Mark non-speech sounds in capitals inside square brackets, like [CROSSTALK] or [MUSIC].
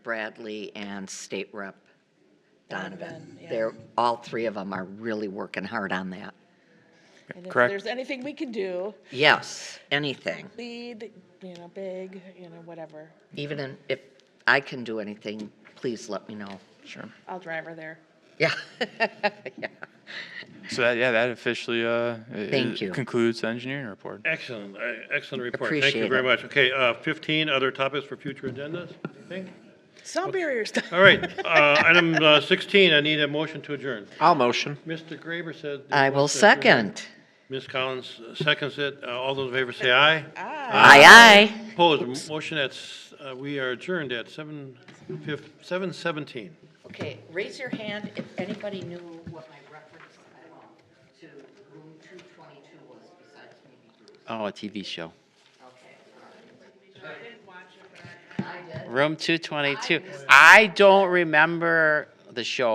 Bradley and State Rep Donovan. Donovan, yeah. They're, all three of them are really working hard on that. And if Correct. there's anything we can do, Yes, anything, lead, you know, big, you know, whatever, even in- if I can do anything, please let me know. Sure. I'll drive her there. Yeah. So that, yeah, that officially, uh, i- Thank i- you. concludes the engineering report. Excellent, uh, excellent report. Thank Appreciate you very it. much. Okay, uh, 15 other topics for future agendas, I think? Sound barriers. [LAUGHS] All right, uh, item uh, 16, I need a motion to adjourn. I'll motion. Mr. Graber said. [LAUGHS] he I will wants to adjourn. second. Ms. Collins uh, seconds it. Uh, All those in favor say aye. Aye, aye. Opposed, motion at, s- uh, we are adjourned at 7, 7:17. Okay, raise your hand if anybody knew what my reference to room 222 was besides me. Oh, a TV show. I did. Room 222. I don't remember the show.